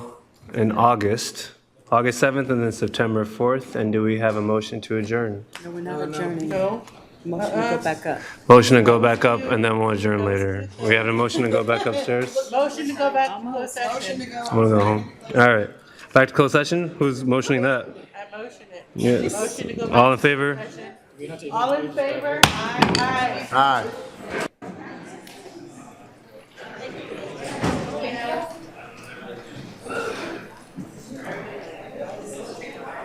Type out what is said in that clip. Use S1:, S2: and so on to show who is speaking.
S1: in August, August 7th and then September 4th. And do we have a motion to adjourn?
S2: No, we're not adjourning.
S3: No?
S2: Motion to go back up.
S1: Motion to go back up and then we'll adjourn later. We had a motion to go back upstairs.
S3: Motion to go back to closed session.
S1: I want to go home. All right. Back to closed session? Who's motioning that?
S3: I motion it.
S1: Yes.
S3: Motion to go back
S1: All in favor?
S3: to session. All in favor? Aye, aye.
S4: Aye.